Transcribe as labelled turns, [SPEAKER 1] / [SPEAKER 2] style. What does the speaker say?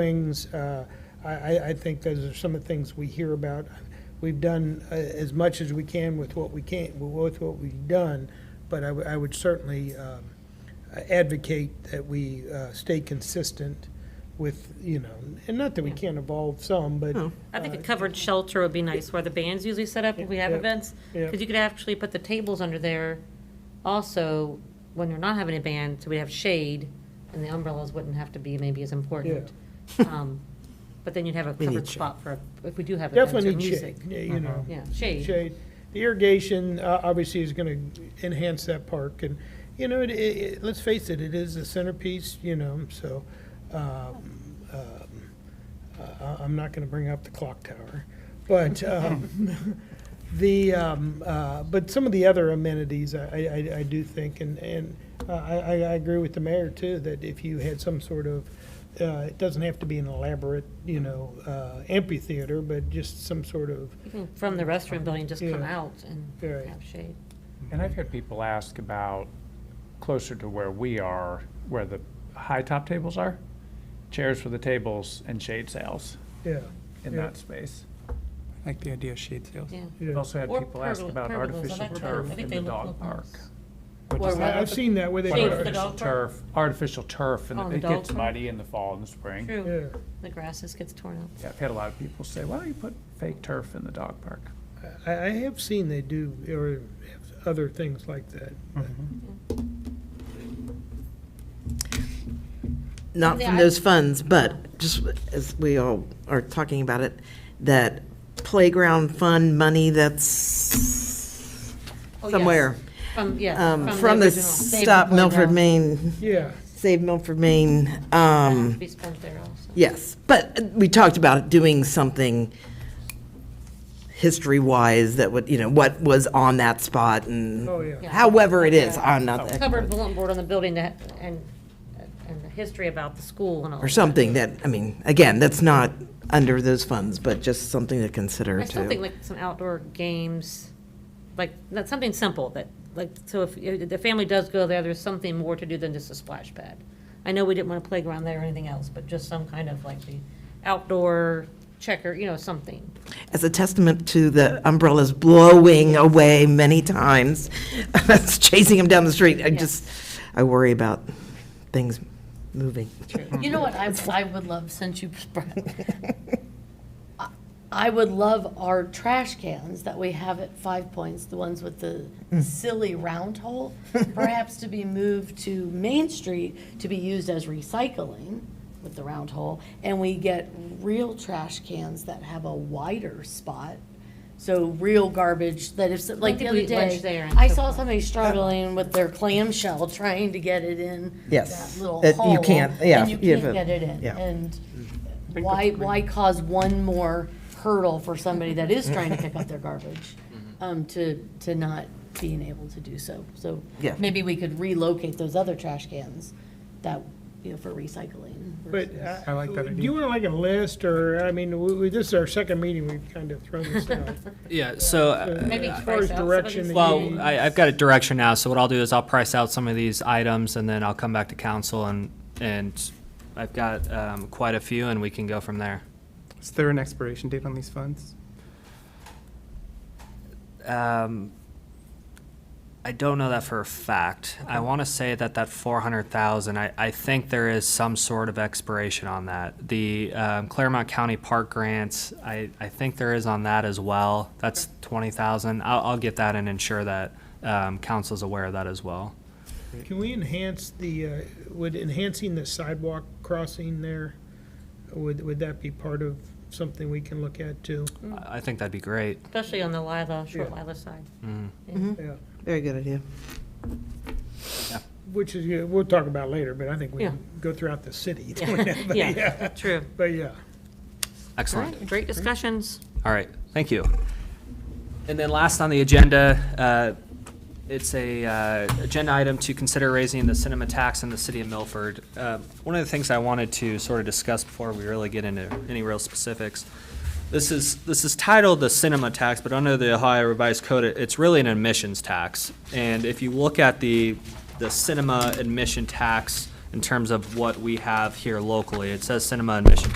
[SPEAKER 1] swings. Uh, I, I, I think those are some of the things we hear about. We've done uh, as much as we can with what we can, with what we've done, but I, would- I would certainly um, advocate that we uh, stay consistent with, you know, and not that we can't evolve some, but.
[SPEAKER 2] I think a covered shelter would be nice, where the band's usually set up if we have
[SPEAKER 1] Uh, Yeah.
[SPEAKER 2] events.
[SPEAKER 1] Yeah.
[SPEAKER 2] Because you could actually put the tables under there also when you're not having a band, so we have shade, and the umbrellas wouldn't have to be maybe as important. Um, But then you'd have a
[SPEAKER 3] We need
[SPEAKER 2] covered
[SPEAKER 3] shade.
[SPEAKER 2] spot for, if we do have events
[SPEAKER 1] Definitely
[SPEAKER 2] or
[SPEAKER 1] need
[SPEAKER 2] music.
[SPEAKER 1] shade, yeah, you know.
[SPEAKER 2] Yeah, shade.
[SPEAKER 1] shade. The irrigation, uh, obviously, is gonna enhance that park, and, you know, it, it, let's face it, it is the centerpiece, you know, so, um, um, I, I'm not gonna bring up the clock tower, but, um, the, um, uh, but some of the other amenities, I, I- I, I do think, and, and uh, I, I, I agree with the mayor, too, that if you had some sort of, uh, it doesn't have to be an elaborate, you know, uh, amphitheater, but just some sort of,
[SPEAKER 2] Even From the restaurant building, just come
[SPEAKER 1] Yeah.
[SPEAKER 2] out and
[SPEAKER 1] Right.
[SPEAKER 2] have shade.
[SPEAKER 4] And I've had people ask about closer to where we are, where the high top tables are, chairs for the tables and shade sails
[SPEAKER 1] yeah.
[SPEAKER 4] in
[SPEAKER 1] Yeah.
[SPEAKER 4] that space.
[SPEAKER 3] I like the idea of shade sales.
[SPEAKER 2] Yeah.
[SPEAKER 4] I've
[SPEAKER 1] Yeah.
[SPEAKER 4] also had
[SPEAKER 2] Or
[SPEAKER 4] people ask
[SPEAKER 2] pergolas-
[SPEAKER 4] about
[SPEAKER 2] pergolas, I
[SPEAKER 4] artificial
[SPEAKER 2] like pergolas. I
[SPEAKER 4] turf
[SPEAKER 2] think
[SPEAKER 4] in
[SPEAKER 2] they
[SPEAKER 4] the
[SPEAKER 2] look-
[SPEAKER 4] dog
[SPEAKER 2] look
[SPEAKER 4] park.
[SPEAKER 2] nice.
[SPEAKER 4] Which
[SPEAKER 2] Or
[SPEAKER 4] is
[SPEAKER 2] rather-
[SPEAKER 1] I- I've seen that where they.
[SPEAKER 2] Shade for the
[SPEAKER 4] Artificial
[SPEAKER 2] dog park?
[SPEAKER 4] turf, artificial turf,
[SPEAKER 2] Oh,
[SPEAKER 4] and
[SPEAKER 2] the
[SPEAKER 4] it
[SPEAKER 2] dog
[SPEAKER 4] gets
[SPEAKER 2] park?
[SPEAKER 4] muddy in the fall and the spring.
[SPEAKER 2] True,
[SPEAKER 1] Yeah,
[SPEAKER 2] the grasses gets torn up.
[SPEAKER 4] Yeah, I've had a lot of people say, why don't you put fake turf in the dog park?
[SPEAKER 1] I, I have seen they do, or have other things like that.
[SPEAKER 5] Mm-hmm.
[SPEAKER 1] Mm-hmm.
[SPEAKER 3] Not
[SPEAKER 2] Yeah,
[SPEAKER 3] from
[SPEAKER 2] I-
[SPEAKER 3] those funds, but just as we all are talking about it, that playground fund money that's
[SPEAKER 2] Oh, yes.
[SPEAKER 3] somewhere.
[SPEAKER 2] From, yeah.
[SPEAKER 3] um,
[SPEAKER 2] the
[SPEAKER 3] From the
[SPEAKER 2] original Save
[SPEAKER 3] Stop Milford,
[SPEAKER 2] Playground.
[SPEAKER 3] Maine,
[SPEAKER 1] Yeah,
[SPEAKER 3] Save Milford, Maine,
[SPEAKER 2] That has
[SPEAKER 3] um,
[SPEAKER 2] to Be spent there also.
[SPEAKER 3] Yes, but we talked about doing something history-wise that would, you know, what was on that spot and
[SPEAKER 1] oh, yeah.
[SPEAKER 2] Yeah.
[SPEAKER 3] however it is, I'm not, the-
[SPEAKER 2] covered bulletin board on the building that, and, and the history about the school and all.
[SPEAKER 3] or something that, I mean, again, that's not under those funds, but just something to consider
[SPEAKER 2] I still think
[SPEAKER 3] too.
[SPEAKER 2] like some outdoor games, like, not something simple that, like, so if, if the family does go there, there's something more to do than just a splash pad. I know we didn't want a playground there or anything else, but just some kind of like the outdoor checker, you know, something.
[SPEAKER 3] As a testament to the umbrellas blowing away many times, chasing them down the street, I
[SPEAKER 2] Yeah.
[SPEAKER 3] just, I worry about things moving.
[SPEAKER 6] You know what I, I would love, since you brought, I- I would love our trash cans that we have at Five Points, the ones with the silly round hole, perhaps to be moved to Main Street to be used as recycling with the round hole, and we get real trash cans that have a wider spot. So real garbage that if, like the
[SPEAKER 2] think
[SPEAKER 6] other
[SPEAKER 2] we eat lunch there
[SPEAKER 6] day,
[SPEAKER 2] and
[SPEAKER 6] I
[SPEAKER 2] so
[SPEAKER 6] saw
[SPEAKER 2] forth.
[SPEAKER 6] somebody struggling with their clamshell trying to get it in
[SPEAKER 3] Yes.
[SPEAKER 6] that little
[SPEAKER 3] That you
[SPEAKER 6] hole.
[SPEAKER 3] can't- yeah,
[SPEAKER 6] And you
[SPEAKER 3] you have
[SPEAKER 6] can't
[SPEAKER 3] a-
[SPEAKER 6] get it in.
[SPEAKER 3] yeah.
[SPEAKER 6] And why, why cause one more hurdle for somebody that is trying to pick up their garbage? Um, to, to not being able to do so. So
[SPEAKER 3] Yeah.
[SPEAKER 6] maybe we could relocate those other trash cans that, you know, for recycling.
[SPEAKER 1] But. uh,
[SPEAKER 5] I like that
[SPEAKER 1] Do
[SPEAKER 5] idea.
[SPEAKER 1] you want like a list, or, I mean, we, we- this is our second meeting, we've kind of thrown this out.
[SPEAKER 7] Yeah, so, uh,
[SPEAKER 2] Maybe
[SPEAKER 1] As far as
[SPEAKER 2] price out some of
[SPEAKER 1] direction.
[SPEAKER 2] these
[SPEAKER 1] that
[SPEAKER 7] well,
[SPEAKER 1] you-
[SPEAKER 7] I, I've got a direction now, so what I'll do is I'll price out some of these items, and then I'll come back to council, and, and I've got, um, quite a few, and we can go from there.
[SPEAKER 5] Is there an expiration date on these funds?
[SPEAKER 7] Um, I don't know that for a fact. I want to say that that four hundred thousand, I, I think there is some sort of expiration on that. The um, Claremont County Park grants, I, I think there is on that as well. That's twenty thousand. I'll, I'll get that and ensure that, um, council's aware of that as well.
[SPEAKER 1] Can we enhance the, uh, would enhancing the sidewalk crossing there, would, would that be part of something we can look at too?
[SPEAKER 7] I I think that'd be great.
[SPEAKER 2] Especially on the Lila, short
[SPEAKER 1] Yeah.
[SPEAKER 2] Lila side. Mm-hmm.
[SPEAKER 1] Yeah.
[SPEAKER 3] Very good idea.
[SPEAKER 1] Which is, yeah, we'll talk about later, but I think we
[SPEAKER 2] Yeah.
[SPEAKER 1] can go throughout the city. But
[SPEAKER 2] Yeah, true.
[SPEAKER 1] But yeah.
[SPEAKER 2] All
[SPEAKER 7] Excellent.
[SPEAKER 2] right, great discussions.
[SPEAKER 7] All right, thank you. And then last on the agenda, uh, it's a uh, agenda item to consider raising the cinema tax in the city of Milford. Uh, One of the things I wanted to sort of discuss before we really get into any real specifics, this is, this is titled the cinema tax, but under the Ohio Revised Code, it- it's really an admissions tax. And if you look at the, the cinema admission tax in terms of what we have here locally. It says cinema and mission